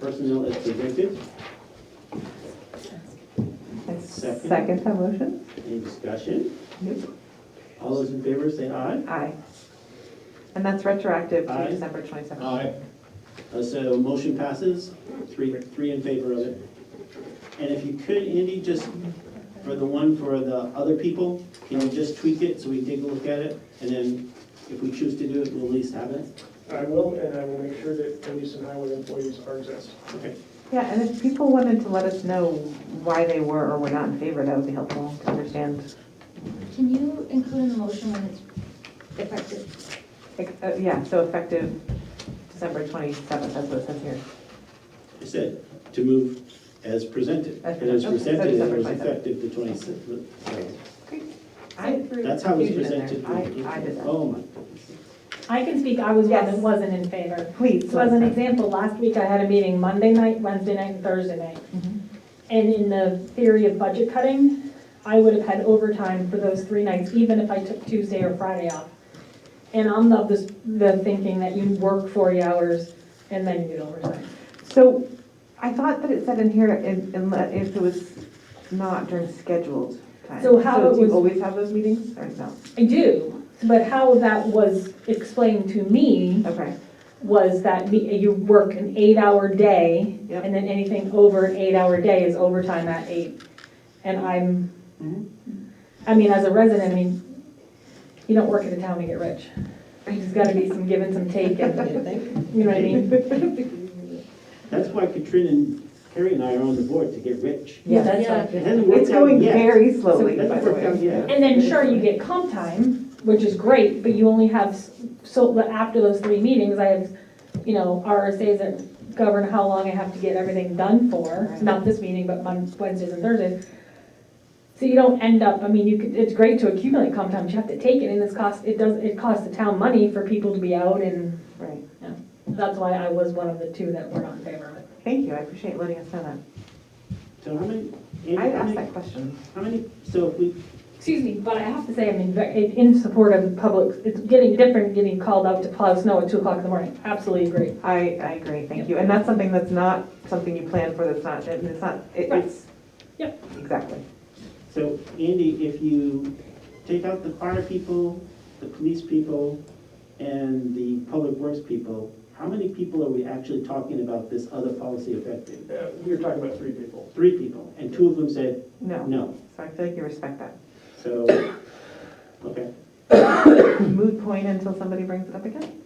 personnel as presented. I Second. Second that motion? Any discussion? All those in favor say aye. Aye. And that's retroactive Aye. to December 27th. Aye. Uh, So motion passes, three, three in favor of it. And if you could, Andy, just for the one for the other people, can you just tweak it so we take a look at it? And then if we choose to do it, we'll at least have it. I will, and I will make sure that police and highway employees are exempt. Okay. Yeah, and if people wanted to let us know why they were or were not in favor, that would be helpful to understand. Can you include in the motion when it's effective? Like, uh, Yeah, so effective December 27th, that's what it says here. I said, to move as presented. As And as presented. presented, it Okay, so December was 27th. effective the twenty-sixth. I threw That's how it's confusion in presented. there. I I did that. Oh, my. I can speak, I was one that Yes. wasn't in favor. Please. So as an example, last week I had a meeting Monday night, Wednesday night, and Thursday night. Mhm. And in the theory of budget cutting, I would have had overtime for those three nights, even if I took Tuesday or Friday off. And I'm of the, the thinking that you work 40 hours and then you get overtime. So I thought that it said in here in- inle- if it was not during scheduled time. So how it do you was- always have those meetings or no? I do, but how that was explained to me Okay, was that the- you work an eight-hour day, Yep. and then anything over an eight-hour day is overtime at eight. And I'm, Mhm. I mean, as a resident, I mean, you don't work at a town to get rich. There's gotta be some give and some take, and, you know what I mean? That's why Katrina and Carrie and I are on the board to get rich. Yeah, that's Yeah. right. It hasn't worked it's going out yet. very slowly, It by hasn't the worked out way. yet. And then, sure, you get comp time, which is great, but you only have, s- so, but after those three meetings, I have, you know, RSAs that govern how long I have to get everything done for, Right. not this meeting, but Mon- Wednesdays and Thursdays. So you don't end up, I mean, you could, it's great to accumulate comp time, but you have to take it, and it's cost, it does, it costs the town money for people to be out, and Right. that's why I was one of the two that were not in favor of it. Thank you, I appreciate letting us know that. So how many, Andy, I how asked many, that question. how many, so if we, Excuse me, but I have to say, I'm in, ve- in in support of the public, it's getting different, getting called out to plow snow at two o'clock in the morning, absolutely agree. I, I agree, thank you. And that's something that's not something you plan for, that's not, and it's not, it- Right. it's. Yep. Exactly. so Andy, if you take out the fire people, the police people, and the public works people, how many people are we actually talking about this other policy affecting? Uh, We were talking about three people. Three people, and two of them said No, no. so I feel like you respect that. So, okay, Moot point until somebody brings it up again?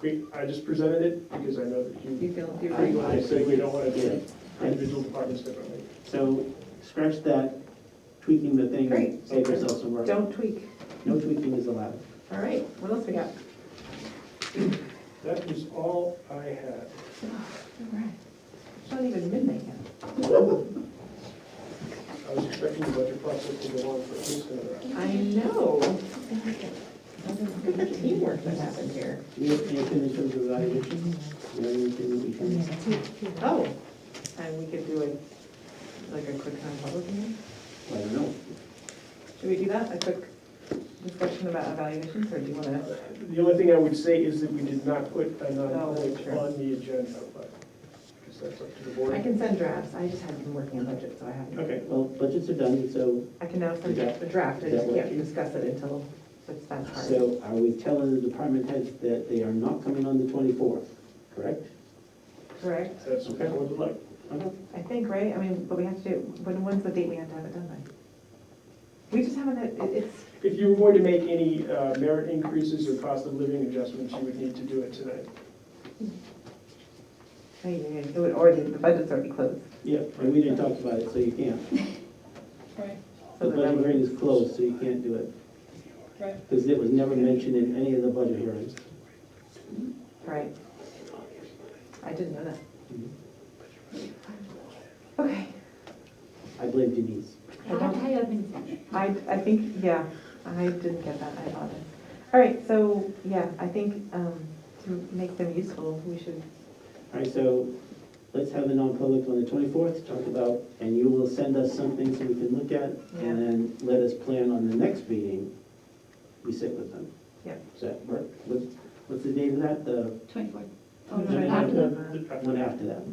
We, I just presented it because I know that you, feel, you I said we don't want to yeah. do individual departments differently. So scratch that tweaking the thing, and Great. save yourself some work. Don't tweak. No tweaking is allowed. All right, what else we got? That is all I had. It's not even midnight yet. I was expecting the budget process to go on for at least another hour. I know. Look at the teamwork that happened here. Do you have anything in terms of evaluation? Do you have anything that we can? Oh, and we could do a, like a quick non-public meeting? I don't know. Should we do that, a quick discussion about evaluations, or do you want to? The only thing I would say is that we did not put a Oh, non-public sure. on the agenda, but because that's up to the I board. can send drafts, I just haven't been working on budget, so I haven't. Okay. Well, budgets are done, so, I can now send Yeah. a draft, I That just can't working? discuss it until it's that part. so are we telling the department heads that they are not coming on the twenty-fourth, correct? Correct, That's what the board would like. I think, right, I mean, but we have to do, when, when's the date we have to have it done by? We just haven't, had- it- it's, If you were going to make any uh, merit increases or cost of living adjustments, you would need to do it tonight. hey, yeah, yeah, it would already, the budget's already closed. Yeah, and we didn't talk about it, so you can't. Right, The So the budget number- hearing is closed, so you can't do it. right. Because it was never mentioned in any of the budget hearings. Right. I didn't know that. Mhm. Okay, I blame Denise. I don't- I haven't seen it. I, I think, yeah, I didn't get that, I thought. All right, so, yeah, I think um, to make them useful, we should, All right, so let's have a non-public on the twenty-fourth, talk about, and you will send us something so we can look at, Yeah. and then let us plan on the next meeting, we sit with them. Yeah. Does that work? What's, what's the date of that? The Twenty-fourth. Oh, no, no, After no, that. no. The- one after that?